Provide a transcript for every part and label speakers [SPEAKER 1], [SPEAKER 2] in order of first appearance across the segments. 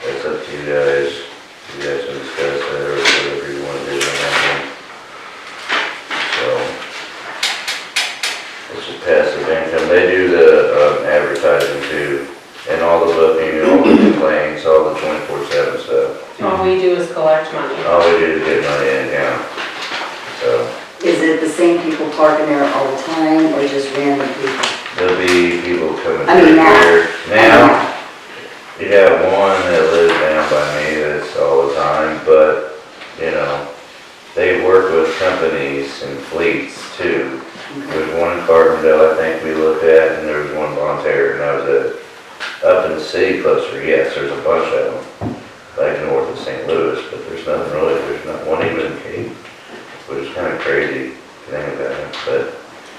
[SPEAKER 1] you guys, you guys can discuss that or whatever you wanna do on that one. So. It's a passive income, they do the um, advertising too, and all the booking, all the complaints, all the twenty-four seven stuff.
[SPEAKER 2] All we do is collect money.
[SPEAKER 1] All we do is get money in now, so.
[SPEAKER 3] Is it the same people parking there all the time or just random people?
[SPEAKER 1] There'll be people coming
[SPEAKER 3] I mean,
[SPEAKER 1] through
[SPEAKER 3] now.
[SPEAKER 1] here. Now, you got one that lives down by me that's all the time, but, you know, they work with companies and fleets too. There's one in Carbondale, I think we looked at, and there was one volunteer, and that was it. Up in the city cluster, yes, there's a bunch of them, like north of St. Louis, but there's nothing really, there's not one even in Cape, which is kind of crazy, thing about it, but,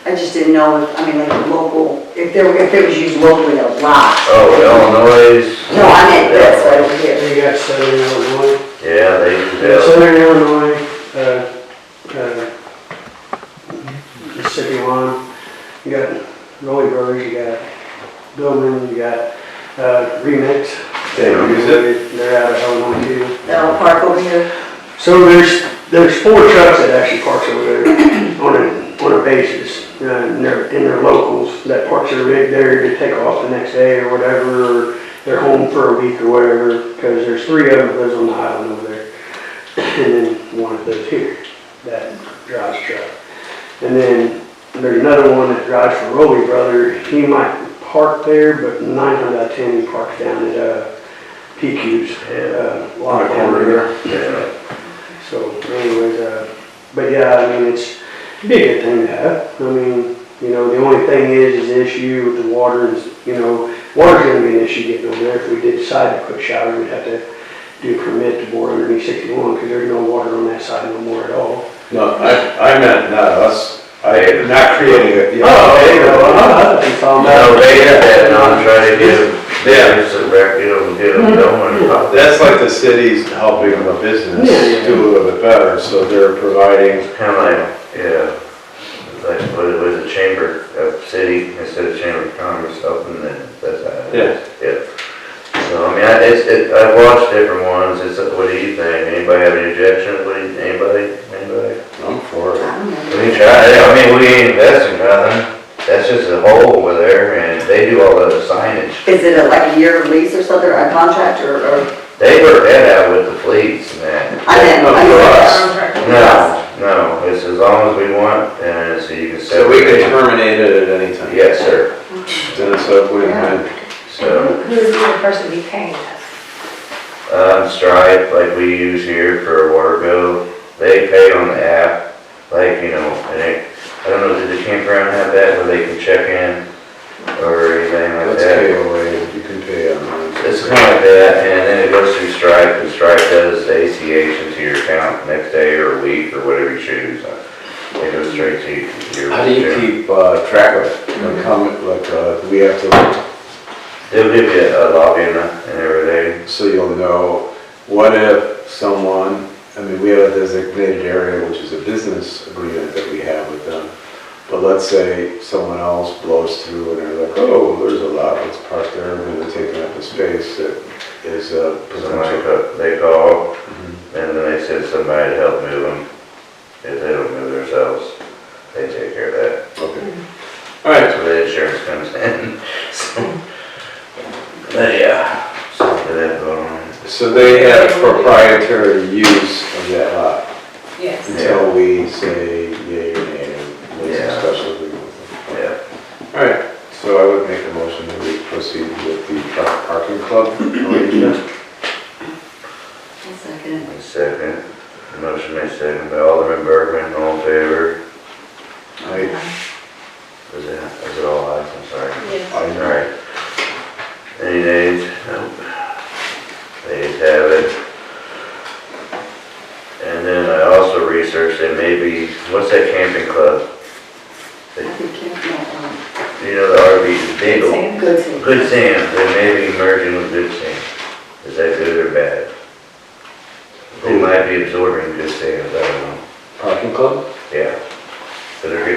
[SPEAKER 3] I just didn't know, if I mean, like local, if there, were- if it was used locally a lot.
[SPEAKER 1] oh, Illinois.
[SPEAKER 3] No, I meant this right over here.
[SPEAKER 4] They got Southern Illinois.
[SPEAKER 1] Yeah, they, they,
[SPEAKER 4] Southern Illinois, uh, uh, Mississippi Lawn, you got Roy Brothers, you got Billman, you got, uh, Remix.
[SPEAKER 1] They use it?
[SPEAKER 4] They're out of Illinois too.
[SPEAKER 3] That'll park over here.
[SPEAKER 4] So there's, there's four trucks that actually parks over there on a, on a basis. uh, And they're, and they're locals that parks their rig there to take off the next day or whatever, or they're home for a week or whatever, because there's three of them that lives on the island over there. And then one of those here, that drives truck. And then there's another one that drives for Rowley Brother. He might park there, but nine times out of ten, he parks down at, uh, PQ's, uh, lot down there.
[SPEAKER 1] yeah.
[SPEAKER 4] So anyways, uh, but yeah, I mean, it's, it'd be a good thing to have. I mean, you know, the only thing is, is the issue with the water is, you know, water's gonna be an issue getting over there. If we did decide to put shower, we'd have to do a permit to bore underneath sixty-one, because there's no water on that side no more at all.
[SPEAKER 5] No, I, I meant not us, I, not creating it. yeah.
[SPEAKER 1] No, they had that, and I'm trying to give, there's a record of them, no one,
[SPEAKER 5] That's like the city's helping the business
[SPEAKER 4] Oh. Yeah.
[SPEAKER 5] do a little bit better, so they're providing,
[SPEAKER 1] it's kind of like, yeah. It's like, what it was, a chamber of city instead of chamber of commerce, helping them, that's how. it is. Yeah. So, I mean, I, it's, it, I've watched different ones, it's, uh, what do you think, anybody have any objection, what do you, anybody, anybody?
[SPEAKER 5] I'm for it.
[SPEAKER 3] I don't know.
[SPEAKER 1] We try, I mean, we ain't investing nothing, that's just a hole over there, and they do all the signage.
[SPEAKER 3] Is it a- like a year lease or something, or a contract or, or?
[SPEAKER 1] They work that out with the fleets and that.
[SPEAKER 3] I didn't, I
[SPEAKER 5] No,
[SPEAKER 3] didn't.
[SPEAKER 5] us.
[SPEAKER 1] No, no, it's as long as we want, and so you can
[SPEAKER 5] So we
[SPEAKER 1] separate.
[SPEAKER 5] can terminate it at any time.
[SPEAKER 1] Yes, sir,
[SPEAKER 5] Then it's a win-win.
[SPEAKER 1] so,
[SPEAKER 2] Who's the person be paying us?
[SPEAKER 1] um, Stripe, like we use here for a water bill, they pay on the app, like, you know, and it, I don't know, did the campground have that where they can check in or anything like
[SPEAKER 5] Let's
[SPEAKER 1] that?
[SPEAKER 5] pay away, you can pay online.
[SPEAKER 1] It's kind of like that, and then it goes through Stripe, and Stripe does the ACH into your account next day or week or whatever you choose. It goes straight to your.
[SPEAKER 5] How do you keep uh, track of it? Like, how, mu- like, uh, we have to,
[SPEAKER 1] They'll give you a login and everything.
[SPEAKER 5] so you'll know, what if someone, I mean, we have a designated area, which is a business agreement that we have with them. But let's say someone else blows through and they're like, oh, there's a lot that's parked there, and they're taking up the space that is a
[SPEAKER 1] Somebody,
[SPEAKER 5] potential. Mm-hmm.
[SPEAKER 1] co- they call, and then they send somebody to help move them. If they don't move themselves, they take care of that.
[SPEAKER 5] Okay. All right,
[SPEAKER 1] That's where the insurance comes in. So, But yeah, something that, um,
[SPEAKER 5] so they have proprietary use of that lot.
[SPEAKER 2] Yes.
[SPEAKER 5] Until we say yay or nay, and make
[SPEAKER 1] Yeah.
[SPEAKER 5] some special agreement.
[SPEAKER 1] yeah.
[SPEAKER 5] Alright, so I would make a motion that we proceed with the truck parking club arrangement.
[SPEAKER 3] One second.
[SPEAKER 1] Second, motion made second by Alderman Bergman, all in favor,
[SPEAKER 5] I,
[SPEAKER 1] is it, is it all ayes, I'm sorry.
[SPEAKER 2] Yes.
[SPEAKER 5] I know.
[SPEAKER 1] Alright. Any nays? Nope. Nays have it. And then I also researched that maybe, what's that camping club?
[SPEAKER 3] I think, um, yeah,
[SPEAKER 1] You know, the RV, Dingle,
[SPEAKER 3] no, um, good to.
[SPEAKER 1] Good Sam, they may be merging with Good Sam. Is that good or bad? They might be absorbing Good Sam, I don't know.
[SPEAKER 5] Parking club? Oh,
[SPEAKER 1] Yeah. So they're